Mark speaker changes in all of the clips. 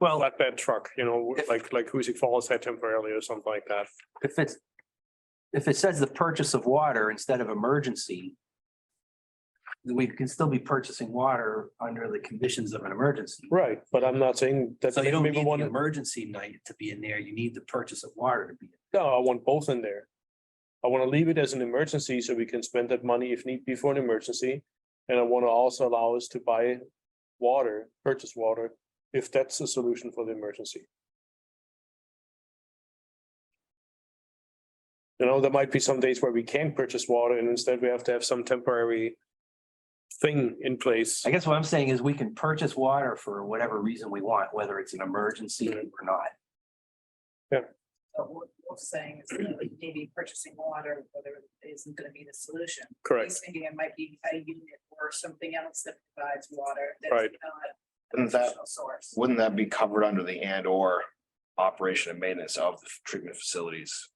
Speaker 1: Well. Flatbed truck, you know,
Speaker 2: If-
Speaker 1: like, like Huzik Falls had temporarily or something like that.
Speaker 2: If it's, if it says the purchase of water instead of emergency, then we can still be purchasing water under the conditions of an emergency.
Speaker 1: Right, but I'm not saying that.
Speaker 2: So you don't need
Speaker 1: maybe
Speaker 2: the
Speaker 1: one,
Speaker 2: emergency night to be in there. You need the purchase of water to be.
Speaker 1: no, I want both in there. I want to leave it as an emergency so we can spend that money if need be for an emergency. And I want to also allow us to buy water, purchase water, if that's the solution for the emergency. You know, there might be some days where we can't purchase water and instead we have to have some temporary thing in place.
Speaker 2: I guess what I'm saying is we can purchase water for whatever reason we want, whether it's an emergency or not.
Speaker 3: But what Wolf's saying is that maybe purchasing water, whether isn't gonna be the solution.
Speaker 1: Correct.
Speaker 3: He's thinking it might be a unit or something else that provides water. that's
Speaker 1: Right.
Speaker 3: not a
Speaker 4: Wouldn't that,
Speaker 3: traditional Source.
Speaker 4: wouldn't that be covered under the and or operation and maintenance of the treatment facilities?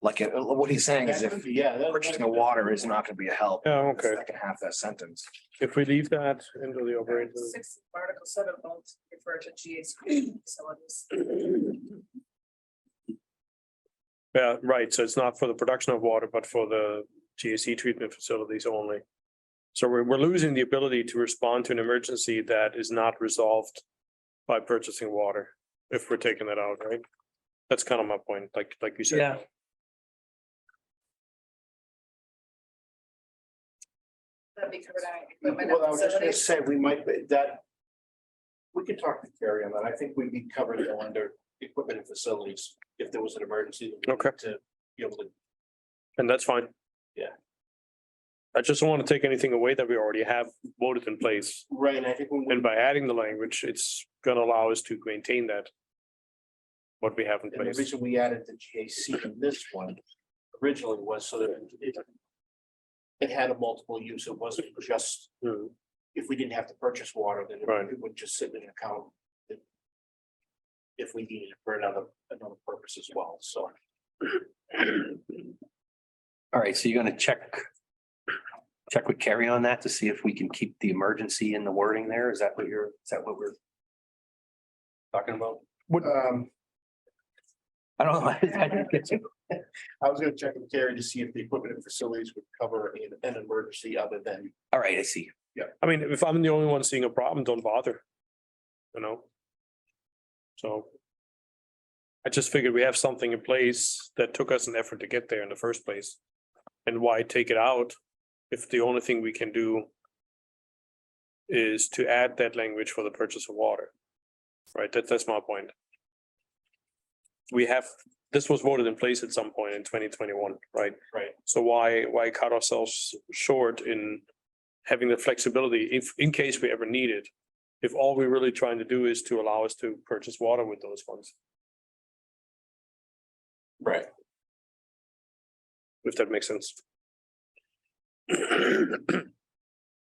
Speaker 4: Like, uh, what he's saying is if purchasing the water is not gonna be a help.
Speaker 1: Yeah,
Speaker 4: the
Speaker 1: Oh, okay.
Speaker 4: Second half of that sentence.
Speaker 1: If we leave that into the operator.
Speaker 3: Six, article seven won't refer to GHG facilities.
Speaker 1: Yeah, right. So it's not for the production of water, but for the GAC treatment facilities only. So we're, we're losing the ability to respond to an emergency that is not resolved by purchasing water, if we're taking that out, right? That's kind of my point, like, like you said.
Speaker 2: Yeah.
Speaker 3: That'd be covered out.
Speaker 5: Well,
Speaker 3: equipment
Speaker 5: I
Speaker 3: and
Speaker 5: was just gonna
Speaker 3: facilities.
Speaker 5: say, we might, be- that. We could talk to Terry on that. I think we'd be covered though under equipment and facilities if there was an emergency. that we
Speaker 1: Okay.
Speaker 5: need To be able to,
Speaker 1: And that's fine.
Speaker 5: Yeah.
Speaker 1: I just don't want to take anything away that we already have voted in place.
Speaker 5: right, and I think when we,
Speaker 1: And by adding the language, it's gonna allow us to maintain that. What we have in
Speaker 5: and the
Speaker 1: place.
Speaker 5: reason we added the GAC in this one originally was so that it. It had a multiple use. It wasn't just,
Speaker 1: Hmm.
Speaker 5: if we didn't have to purchase water, then
Speaker 1: Right.
Speaker 5: it would just sit in an account. that- If we needed it for another, another purpose as well, so.
Speaker 2: All right, so you're gonna check. Check with Carrie on that to see if we can keep the emergency in the wording there. Is that what you're, is that what we're? Talking about?
Speaker 5: Um,
Speaker 2: I don't know. I didn't get you.
Speaker 5: I was gonna check with Terry to see if the equipment and facilities would cover an, an emergency other than.
Speaker 2: All right, I see.
Speaker 1: I mean, if I'm the only one seeing a problem, don't bother. You know? So. I just figured we have something in place that took us an effort to get there in the first place. And why take it out if the only thing we can do is to add that language for the purchase of water? Right, that, that's my point. We have, this was voted in place at some point in twenty twenty-one, right?
Speaker 5: Right.
Speaker 1: So why, why cut ourselves short in having the flexibility if, in case we ever need it. If all we're really trying to do is to allow us to purchase water with those funds,
Speaker 5: Right.
Speaker 1: if that makes sense.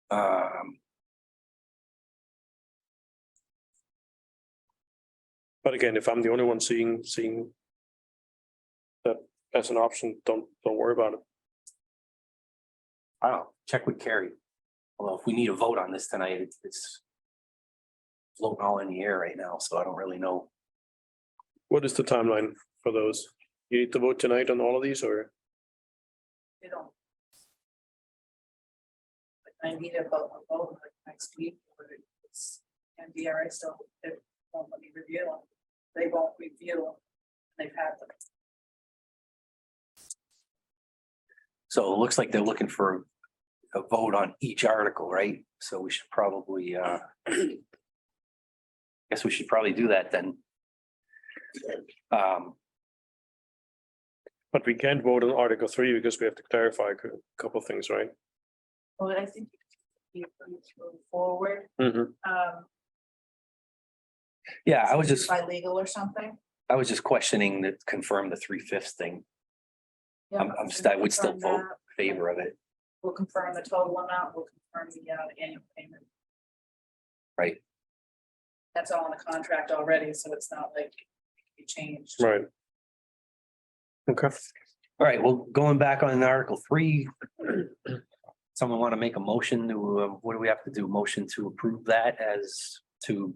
Speaker 2: Um,
Speaker 1: But again, if I'm the only one seeing, seeing that as an option, don't, don't worry about it.
Speaker 2: I don't, know. check with Carrie. Although if we need a vote on this tonight, it's- it's. Floating all in the air right now, so I don't really know.
Speaker 1: What is the timeline for those? You need to vote tonight on all of these or?
Speaker 3: You don't. But I need a vote, a vote like next week, or it's, and DRA still, they won't let me review them. They won't review them. They've had them.
Speaker 2: So it looks like they're looking for a vote on each article, right? So we should probably, uh. Guess we should probably do that then. Um,
Speaker 1: But we can't vote on Article Three because we have to clarify a cou- couple things, right?
Speaker 3: Well, I think you move forward,
Speaker 1: Mm-hmm.
Speaker 3: um,
Speaker 2: yeah, I was just,
Speaker 3: by legal or something.
Speaker 2: I was just questioning that confirm the three fifths thing,
Speaker 3: Yeah,
Speaker 2: I'm- I'm st- I would still
Speaker 3: we'll confirm
Speaker 2: vote.
Speaker 3: that.
Speaker 2: favor of it.
Speaker 3: We'll confirm the total amount, we'll confirm the, uh, the annual payment.
Speaker 2: Right.
Speaker 3: That's all in the contract already, so it's not like it changed.
Speaker 1: Right. Okay.
Speaker 2: All right, well, going back on Article three. Someone want to make a motion to, uh, what do we have to do? Motion to approve that as to